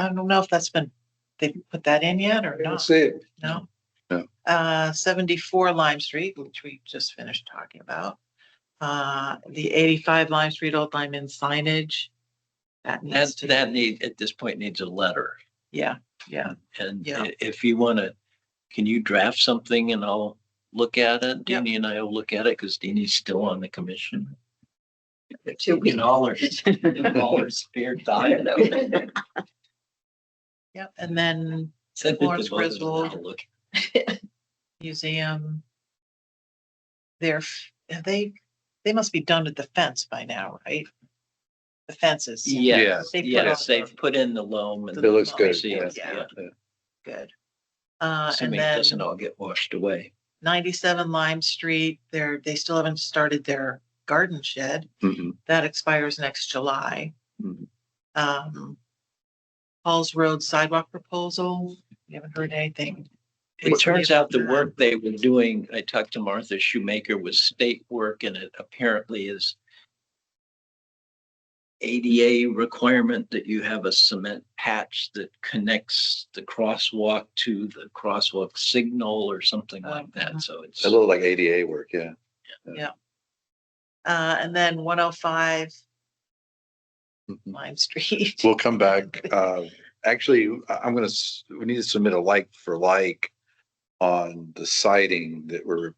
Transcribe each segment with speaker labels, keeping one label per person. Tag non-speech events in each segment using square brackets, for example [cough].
Speaker 1: I don't know if that's been, they put that in yet or
Speaker 2: I don't
Speaker 1: not,
Speaker 2: see it.
Speaker 1: no?
Speaker 3: No.
Speaker 1: Uh, seventy-four Lime Street, which we just finished talking about. Uh, the eighty-five Lime Street Old Lime Inn signage. That needs
Speaker 4: That's,
Speaker 1: to,
Speaker 4: that need, at this point needs a letter.
Speaker 1: yeah, yeah,
Speaker 4: And
Speaker 1: Yeah.
Speaker 4: i- if you want to, can you draft something and I'll look at it?
Speaker 1: Yep.
Speaker 4: Deanie and I will look at it because Deanie's still on the commission.
Speaker 5: Two weeks.
Speaker 4: In all [laughs] her, in all her
Speaker 1: [laughs]
Speaker 4: spare time.
Speaker 1: yeah, and then
Speaker 4: [laughs] Send it to
Speaker 1: Lawrence
Speaker 4: both of us and I'll
Speaker 1: Griswold.
Speaker 4: look.
Speaker 1: museum. They're, f- have they, they must be done with the fence by now, right? The fences.
Speaker 4: Yes,
Speaker 1: They put
Speaker 4: yes,
Speaker 1: on-
Speaker 4: they've put in the loam and.
Speaker 1: It
Speaker 2: It looks good.
Speaker 4: See it,
Speaker 1: Yeah.
Speaker 4: yeah.
Speaker 1: Good. Uh, and
Speaker 4: Assuming it
Speaker 1: then.
Speaker 4: doesn't all get washed away.
Speaker 1: ninety-seven Lime Street, they're, they still haven't started their garden shed.
Speaker 3: Mhm.
Speaker 1: That expires next July.
Speaker 4: Hmm.
Speaker 3: Mhm.
Speaker 1: Um, Paul's Road sidewalk proposal, we haven't heard anything.
Speaker 4: It turns out the work they were doing, I talked to Martha Shoemaker, was state work and it apparently is ADA requirement that you have a cement patch that connects the crosswalk to the crosswalk signal or
Speaker 1: Oh,
Speaker 4: something like
Speaker 1: uh-huh.
Speaker 4: that. So it's,
Speaker 2: A little like ADA work, yeah.
Speaker 1: Uh, and then one oh five
Speaker 3: Mhm.
Speaker 1: Lime Street.
Speaker 3: We'll come back. Uh, actually, I- I'm gonna, s- we need to submit a like for like on the siding that we're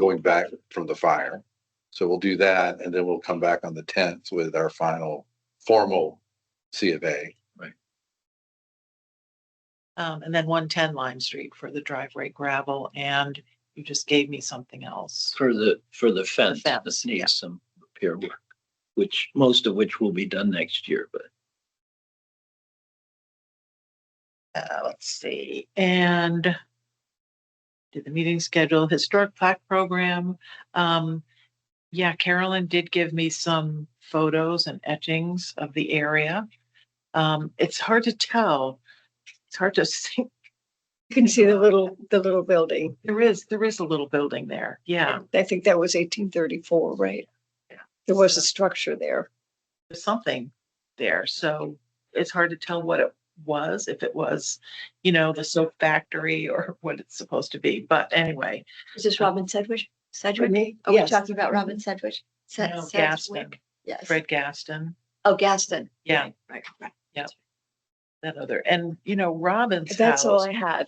Speaker 3: going back from the fire. So we'll do that and then we'll come back on the tenth with our final formal C of A.
Speaker 1: [laughs] Um, and then one ten Lime Street for the driveway gravel, and you just gave me something else.
Speaker 4: for the, for the fence,
Speaker 1: fence,
Speaker 4: this
Speaker 1: yeah.
Speaker 4: needs some repair work, which, most of which will be done next year, but
Speaker 1: Uh, let's see, and did the meeting schedule, historic plaque program. Um, yeah, Carolyn did give me some photos and etchings of the area. Um, it's hard to tell. It's hard to [laughs] see.
Speaker 5: You can see the little, the little building.
Speaker 1: There is, there is a little building there. Yeah,
Speaker 5: I think that was eighteen thirty-four, right?
Speaker 1: Yeah.
Speaker 5: There was a structure there.
Speaker 1: there's something there. So it's hard to tell what it was, if it was, you know, the soap factory or [laughs] what it's supposed to be. But anyway, Oh,
Speaker 6: Is this Robin Sedgwick? Sedgwick?
Speaker 5: me?
Speaker 6: Are we talking about Robin Sedgwick? Se-
Speaker 1: No, Gaston.
Speaker 6: Sedgwick? Yes.
Speaker 1: Fred Gaston.
Speaker 6: Oh, Gaston.
Speaker 1: Yeah.
Speaker 6: Right, Right, right.
Speaker 1: that other, and you know, Robin's
Speaker 5: That's all
Speaker 1: house.
Speaker 5: I had.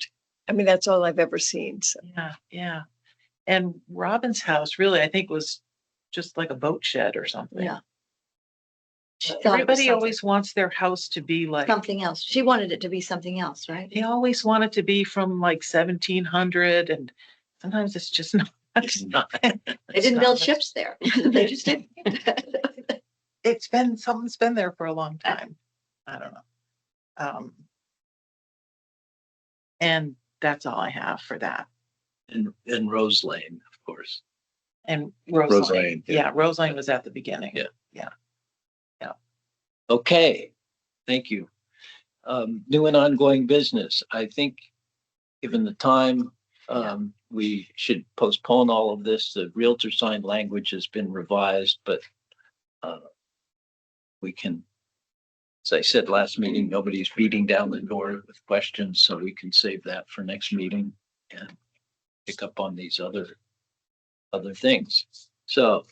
Speaker 5: I mean, that's all I've ever seen. So
Speaker 1: Yeah, yeah. And Robin's house really, I think was just like a boat shed or something.
Speaker 6: Yeah. She
Speaker 1: But
Speaker 6: thought it was
Speaker 1: Everybody always wants their house to be like,
Speaker 6: something- Something else. She wanted it to be something else, right?
Speaker 1: they always want it to be from like seventeen hundred and sometimes it's just [laughs] not.
Speaker 4: it's not.
Speaker 1: [laughs]
Speaker 6: They didn't build ships there. [laughs] They just didn't.
Speaker 1: It's been, something's been there for a long
Speaker 6: Uh.
Speaker 1: time. I don't know. Um. And that's all I have for that.
Speaker 4: And, and Rose Lane, of course.
Speaker 1: And
Speaker 3: Rose
Speaker 1: Roseline,
Speaker 3: Lane, yeah.
Speaker 1: yeah, Roseline was at the beginning.
Speaker 4: Yeah. Okay, thank you. Um, new and ongoing business. I think, given the time, um, we should postpone all of this. The Realtor sign language has been revised, but uh, we can, as I said last meeting, nobody's beating down the door with questions, so we can save that for next meeting and pick up on these other, other things. So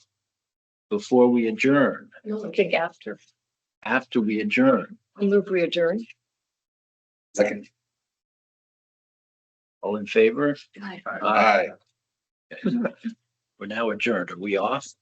Speaker 4: before we adjourn,
Speaker 5: you're looking after.
Speaker 4: after we adjourn.
Speaker 5: I move we adjourn.
Speaker 3: Second.
Speaker 4: All in favor?
Speaker 6: Right.
Speaker 3: Aye.
Speaker 4: We're now adjourned. Are we off?